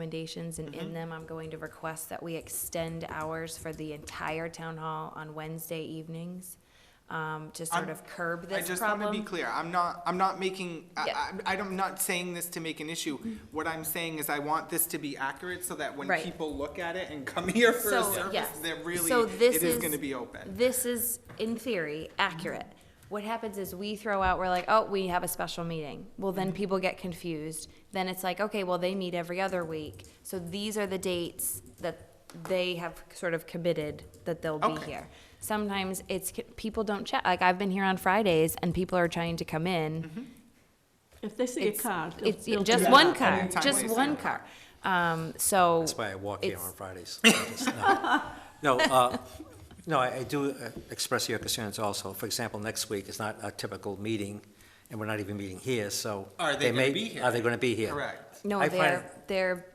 recommendations, and Mm-hmm. in them, I'm going to request that we extend hours for the entire town hall on Wednesday evenings, um, to sort I'm- of curb I this just want to be problem. clear, I'm not, I'm not making, Yeah. Mm-hmm. I, I- I'm not saying this to make an issue. What I'm saying is I want this to be accurate so that when Right. people look at it and come here for a So, service, yes. they're really, So this it is going to be open. This is, in theory, accurate. Mm-hmm. What happens is we throw out, we're like, oh, we have a special meeting. Well, then Mm-hmm. people get confused. Then it's like, okay, well, they meet every other week. So these are the dates that they have sort of committed that they'll be Okay. here. Sometimes it's, c- people don't check, like, I've been here on Fridays and people are trying to come in. If they see a It's, car, they'll- it's they'll just do one that. car, Anytime just they see a one car. Um, so. That's why I walk here it's- on Fridays. I just- No, No, uh, no, I I do uh, express your concerns also. For example, next week is not a typical meeting, and we're not even meeting here, so. Are they gonna may- be here? Are they going to be here? Correct. No, I find- they're, they're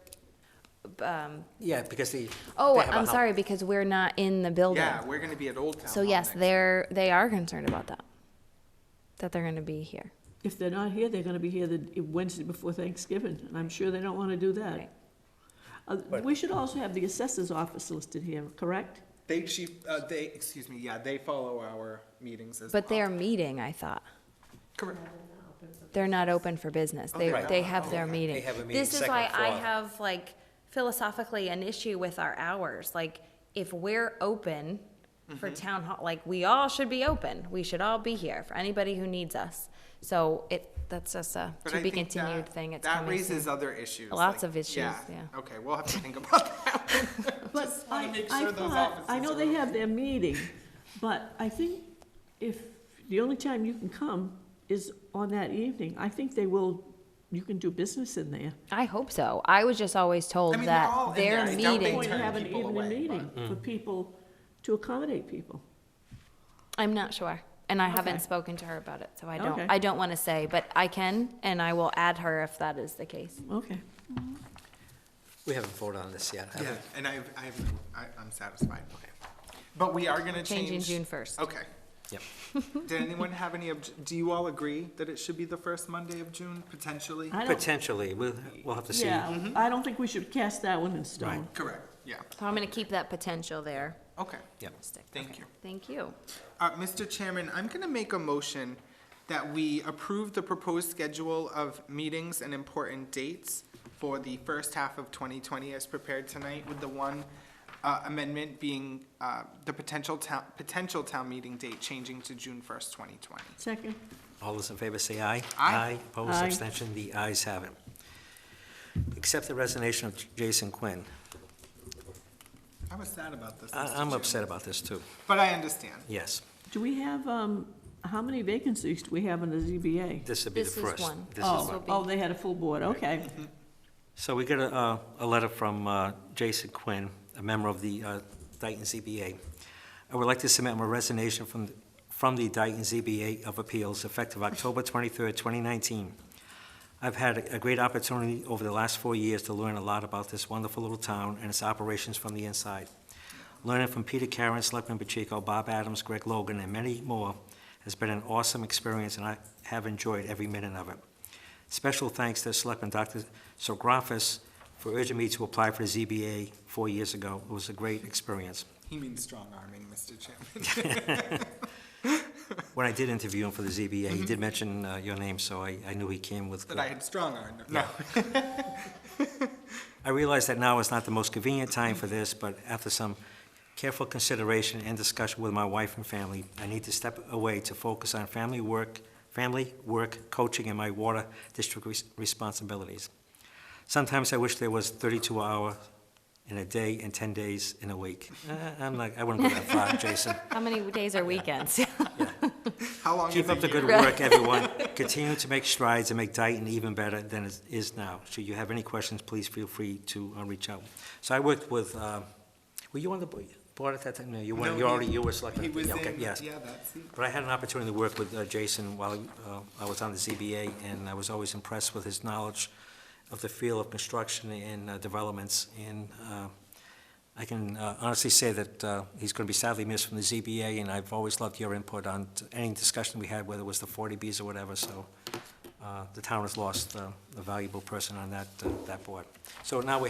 Yeah, because the. Oh, they have a I'm hou- sorry, because we're not in the building. Yeah, we're going to be at Old Town. So Hall yes, next- they're, they are concerned about that, that they're gonna be here. If they're not here, they're gonna be here the Wednesday before Thanksgiving, and I'm sure they don't wanna do Right. that. Uh, We should also have the assessor's office listed here, correct? They, she, uh, they, excuse me, yeah, they follow our meetings as well. But they are meeting, I thought. Correct. They're not open for business. They, they're they not. have their meeting. They have a meeting This is second why I floor. have like philosophically an issue with our hours. Like, if we're open for Mm-hmm. town hall, like, we all should be open. We should all be here for anybody who needs us. So it, that's just a But to I be think continued that- thing. It's That coming raises soon. other issues. Lots like- of issues, yeah. Okay, we'll have to think about that. But wanna I, make I sure those thought, I offices know are they open. have their meeting, but I think if, the only time you can come is on that evening, I think they will, you can do business in there. I hope so. I was just always told I mean, they're all that in there. their I don't meeting think Point to turn have an people evening away, Mm. meeting for people, to accommodate people. I'm not sure, and I Okay. haven't spoken to her about it, so I don't, Okay. I don't want to say, but I can, and I will add her if that is the case. Okay. We haven't voted on this yet. have we? Yeah, and I've, I've, I, I'm satisfied. But we are gonna change. Changing June first. Okay. Yep. Did anyone have any, obj- do you all agree that it should be the first Monday of June, potentially? I don't, Potentially, we'll, we'll have to see. yeah, I don't think we should cast that one in stone. Correct, yeah, So I'm gonna keep that potential there. okay. Yep. Stick. Thank Okay. you. Thank you. Uh, Mr. Chairman, I'm gonna make a motion that we approve the proposed schedule of meetings and important dates for the first half of twenty twenty as prepared tonight, with the one, uh, amendment being, uh, the potential town, potential town meeting date changing to June first, twenty twenty. Second, All those in favor say aye. Aye. Opposed, Aye. abstention, the ayes have it. Accept the resignation of Jason Quinn. I was sad about this, Mr. I- I'm Chairman. upset about this, too. But I understand. Yes, do we have, um, how many vacancies do we have in the ZBA? this would be the This is first. one. This Oh. is will Oh, one. be- oh, they had a full board, okay. So we got a, uh, a letter from uh, Jason Quinn, a member of the uh, Dayton ZBA. I would like to submit my resignation from, the- from the Dayton ZBA of Appeals effective October 23rd, 2019. I've had a great opportunity over the last four years to learn a lot about this wonderful little town and its operations from the inside. Learning from Peter Karen, Selectman Pacheco, Bob Adams, Greg Logan, and many more has been an awesome experience, and I have enjoyed every minute of it. Special thanks to Selectman Dr. Sografis for urging me to apply for the ZBA four years ago. It was a great experience. He means strong arming, Mr. Chairman. When I did interview him for the ZBA, he did mention uh, your name, so I I knew he came with. That I had strong armed. No. Yeah. I realize that now is not the most convenient time for this, but after some careful consideration and discussion with my wife and family, I need to step away to focus on family work, family, work, coaching, and my water district res- responsibilities. Sometimes I wish there was 32 hours in a day and 10 days in a week. Uh, I'm like, I wouldn't go that far, Jason. How many days are weekends? How long Keep is a up the good year? work, everyone. Continue to make strides and make Dayton even better than it is now. Should you have any questions, please feel free to uh, reach out. So I worked with, uh, were you on the bo- board at that time? No, you No, weren't, you he- already, you were selected. He was Yeah, okay, in, yeah, yes. that's, it. But I had an opportunity to work with uh, Jason while uh, I was on the ZBA, and I was always impressed with his knowledge of the field of construction and uh, developments. And uh, I can uh, honestly say that uh, he's going to be sadly missed from the ZBA, and I've always loved your input on t- any discussion we had, whether it was the 40Bs or whatever, so uh, the town has lost uh, a valuable person on that, uh, that board. So now we have